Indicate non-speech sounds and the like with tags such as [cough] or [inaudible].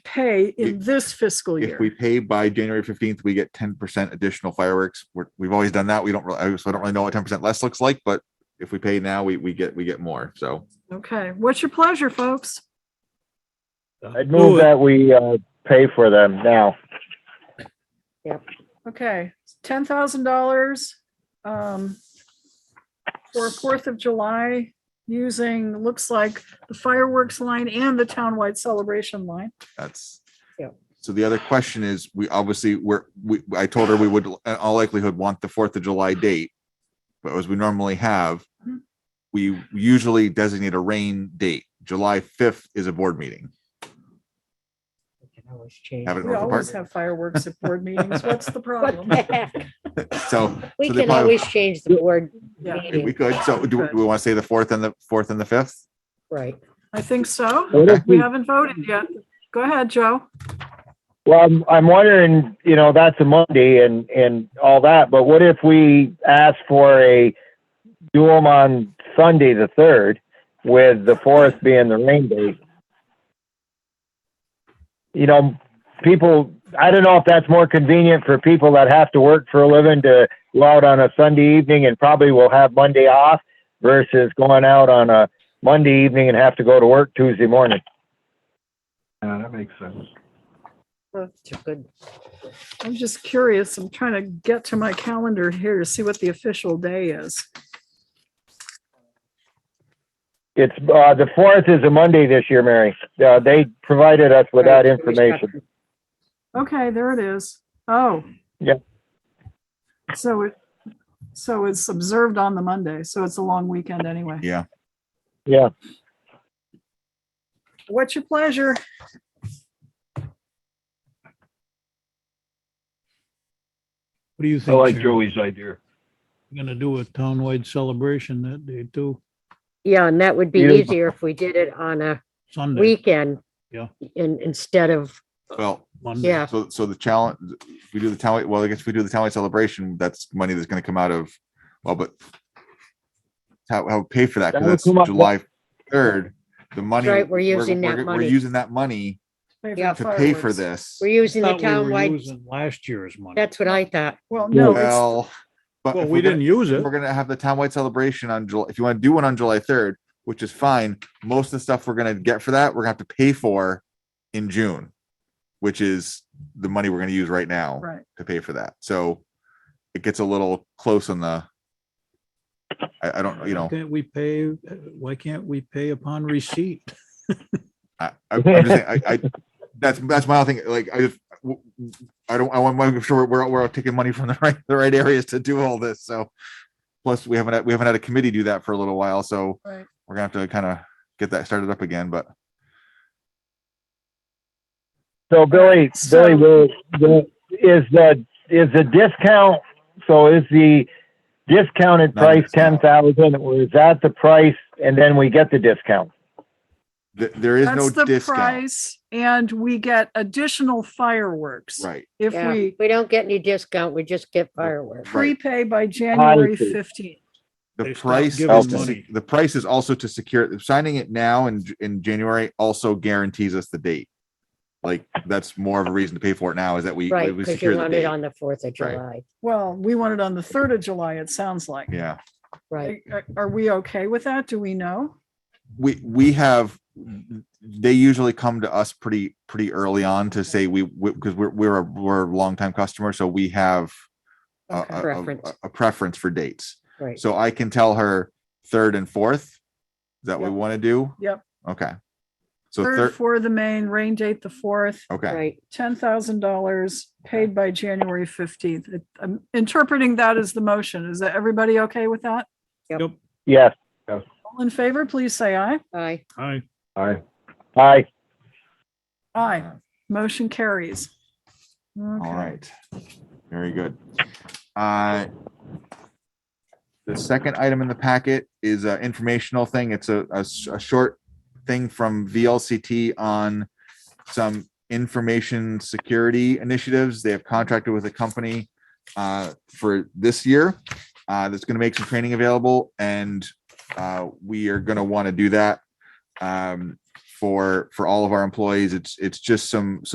pay in this fiscal If we year. pay by January fifteenth, we get ten percent additional fireworks. We're, we've always done that. We don't really, so I don't really know what ten percent less looks like, but if we pay now, we, we get, we get more. So Okay, what's your pleasure, folks? I'd move that we, uh, pay for them now. Okay, ten thousand dollars um for Fourth of July using, looks like the fireworks line and the townwide celebration line. that's. Yeah. So the other question is, we obviously, we're, we, I told her we would, in all likelihood, want the Fourth of July date. But as we normally have, Mm-hmm. Mhm. we usually designate a rain date. July fifth is a board meeting. We can always change. Have it it. We North always Park. have fireworks at board [laughs] meetings. What's the What problem? the heck? So. [laughs] We so they can probably- always change the board Yeah, If we meeting, could, so do we- Okay. do we want to say the fourth and the fourth and the fifth? right? I think so. What if We we, haven't voted yet. Go ahead, Joe. well, I'm, I'm wondering, you know, that's a Monday and, and all that, but what if we ask for a do 'em on Sunday, the third, with the fourth being the rain date? You know, people, I don't know if that's more convenient for people that have to work for a living to go out on a Sunday evening and probably will have Monday off versus going out on a Monday evening and have to go to work Tuesday morning. Yeah, that makes sense. It's a good, I'm just curious. I'm trying to get to my calendar here to see what the official day is. It's, uh, the fourth is a Monday this year, Mary. Uh, they provided us with that Right, information. Okay, there it is. Oh. Yeah. So it, so it's observed on the Monday, so it's a long weekend anyway. Yeah. Yeah. What's your pleasure? What do you I think? like Sharon? Joey's idea. We're Gonna do a townwide celebration that day too, Yeah, and that would be Beautiful. easier if we did it on a Sunday, weekend. Yeah. In, instead of, Well, Monday. yeah, so, so the challenge, if we do the town, well, I guess if we do the townwide celebration, that's money that's going to come out of, well, but how, how we pay for that? That Because would that's come up- July third, the money. right, we're using that we're- money. We're using that money Pay for Yeah. to pay for fireworks. this. we're using the Thought we were townwide, using Last year's money. that's what I thought. Well, no, it's- Well, but Well, if we we're gonna- didn't use it. We're gonna have the townwide celebration on July, if you want to do one on July third, which is fine, most of the stuff we're gonna get for that, we're gonna have to pay for in June. Which is the money we're gonna use right now right. to pay for that, so it gets a little close on the. I, I don't, you know, Can't we pay, why can't we pay upon receipt? I, I- I'm just saying, I, I, that's, that's my thing, like, I just. w- w- I don't, I want, to make sure we're, we're taking money from the right, the right areas to do all this, so. Plus, we haven't, had- we haven't had a committee do that for a little while, so. Right. We're gonna have to kind of get that started up again, but So Billy, So- Billy, will, will- is the, is the discount, so is the discounted Not price ten discount. thousand, or is that the price and then we get the discount? th- there is no That's the discount. price and we get additional fireworks. Right, If Yeah, we we don't get any discount, we just get fireworks. right. prepay by January Honestly. fifteenth. The They stopped price, giving is to se- money. the price is also to secure, signing it now in, J- in January also guarantees us the date. Like, that's more of a reason to pay for it now is that we, Right, we because you secure the want it date. on the Fourth of Right. July, Well, we want it on the third of July, it sounds like. Yeah, right? Are- Are we okay with that? Do we know? we, we have, they usually come to us pretty, pretty early on to say we, because we're, we're, a we're a longtime customer, so we have a- Okay. a- a- Preference. a preference for dates. Right. So I can tell her third and fourth. Is that what we Yep. want to do? Yep. Okay. So Third third, for the main, rain date the fourth, okay, Right, ten thousand dollars paid by January fifteenth. I'm interpreting that as the motion. Is that everybody okay with that? Yes, All in favor, please say aye. aye, Aye. Aye. aye. Aye. Motion carries. all Okay. right. Very good. Uh, The second item in the packet is an informational thing. It's a, a s- a short thing from VLCT on some information security initiatives. They have contracted with a company uh, for this year uh, that's going to make some training available, and uh, we are going to want to do that. Um, for for all of our employees. It's it's just some